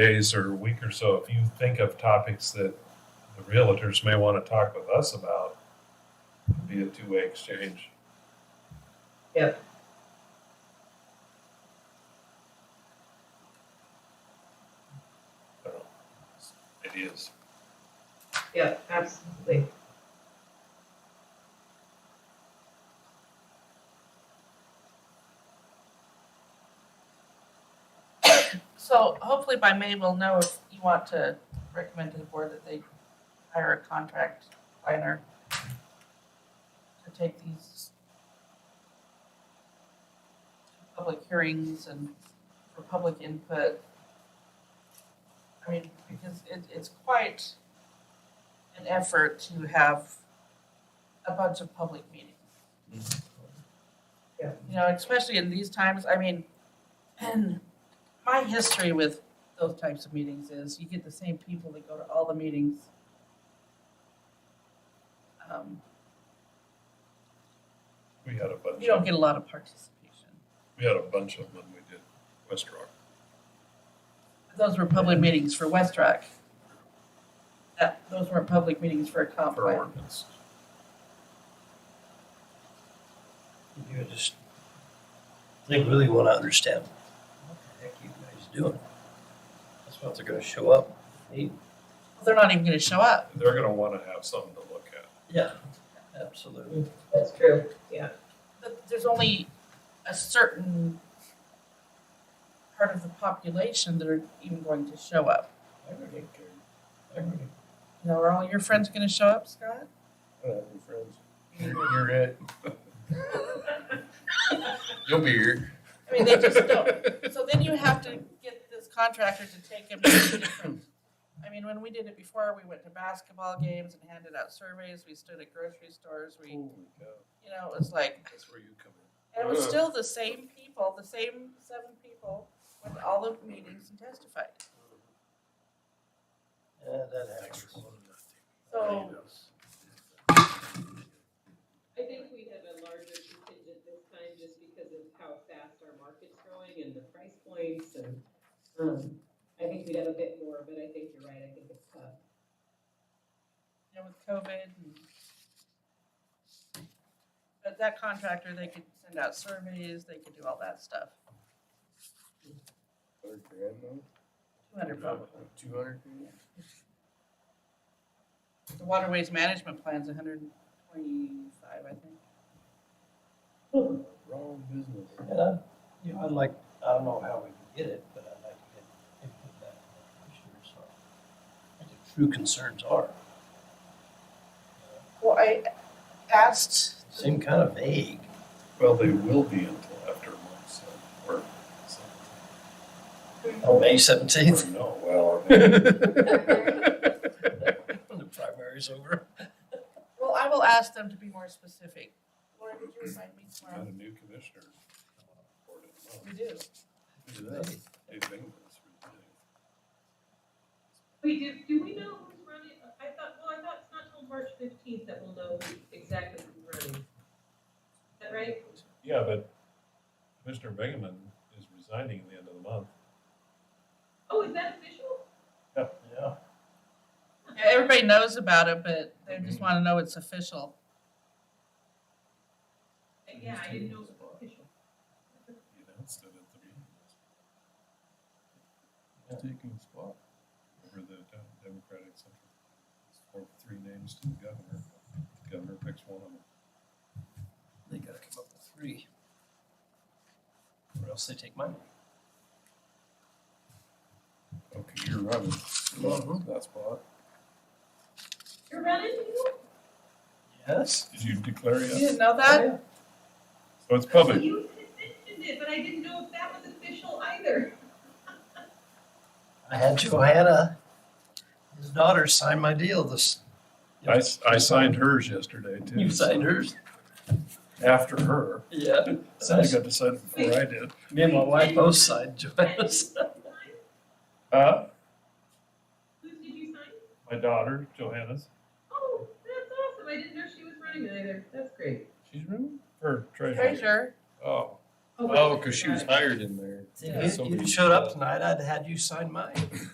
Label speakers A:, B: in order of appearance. A: days or a week or so, if you think of topics that the realtors may want to talk with us about, it'd be a two-way exchange.
B: Yep.
A: So, Ideas.
B: Yep, absolutely.
C: So hopefully by May, we'll know if you want to recommend to the board that they hire a contract planner to take these public hearings and for public input. I mean, because it, it's quite an effort to have a bunch of public meetings.
B: Yeah.
C: You know, especially in these times, I mean, and my history with those types of meetings is you get the same people that go to all the meetings. Um,
A: We had a bunch,
C: you don't
A: of-
C: get a lot of participation.
A: we had a bunch of them when we did West Rock.
C: Those were public meetings for West Rock. That, those weren't public meetings for a comp
A: for
C: plan.
A: ordinance.
D: You just, they really want to understand what the heck you guys doing. That's what they're gonna show up. Hey,
C: They're not even gonna show up.
A: They're gonna want to have something to look at.
D: Yeah, absolutely.
B: That's true. Yeah.
C: But there's only a certain part of the population that are even going to show up.
D: I really care. I really
C: You know, are all your friends gonna show up, Scott?
A: I don't have any friends. You're you're it. You'll be here.
C: I mean, they just don't. So then you have to get this contractor to take him to different. I mean, when we did it before, we went to basketball games and handed out surveys, we stood at grocery stores, we, you
A: Holy cow,
C: know, it was like,
A: that's where you come in.
C: and it was still the same people, the same seven people went to all the meetings and testified.
D: Yeah, that happens.
C: So
E: I think we have a larger contingent this time just because of how fast our market's growing and the price points and, um, I think we'd have a bit more, but I think you're right, I think it's tough.
C: you know, with COVID and. But that contractor, they could send out surveys, they could do all that stuff.
A: Hundred grand though?
C: Two hundred bucks.
A: Two hundred grand?
C: The waterways management plan's a hundred and twenty-five, I think.
A: Wrong business.
D: And I, you know, I'd like, I don't know how we can get it, but I'd like to get input back from the commissioners on what the true concerns are.
C: Well, I asked,
D: Seem kind of vague.
A: Well, they will be until after month seven, or something.
D: Oh, May seventeenth,
A: Or No, well, I mean,
D: when the primary's over.
C: well, I will ask them to be more specific. Laura, did you remind me
A: we got
C: tomorrow?
A: a new commissioner. Board of Health.
C: We do.
A: Who's that? Dave Bingham's retiring.
E: We do, do we know who's running? I thought, well, I thought it's not till March fifteenth that we'll know who- exactly who's running. Is that right?
A: Yeah, but Commissioner Bingaman is resigning at the end of the month.
E: Oh, is that official?
D: Yeah.
C: Yeah, everybody knows about it, but they just wanna know it's official.
E: Uh, Yeah, I didn't know it was official.
A: He announced it at the meeting. He's Taking his spot over the Dem- Democratic Central. Or three names to the governor. The Governor picks one of them.
D: They gotta come up with three. Or else they take mine.
A: Okay, you're running.
D: Mhm.
A: That spot.
E: You're running?
D: Yes?
A: Did you declare
C: You
A: yet?
C: didn't know that?
A: So it's public.
E: You had mentioned it, but I didn't know if that was official either.
D: I had Johanna, his daughter, sign my deal this.
A: I, s- I signed hers yesterday too.
D: You signed hers?
A: After her.
D: Yeah.
A: Somebody got to sign it before I did.
D: Me and my wife both signed Johanna's.
A: Uh,
E: Who did you sign?
A: my daughter, Johanna's.
E: Oh, that's awesome. I didn't know she was running either. That's great.
A: She's running? Her treasurer.
C: Treasure.
A: Oh,
F: Oh, because she was hired in there.
D: If you- you showed up tonight, I'd had you sign mine.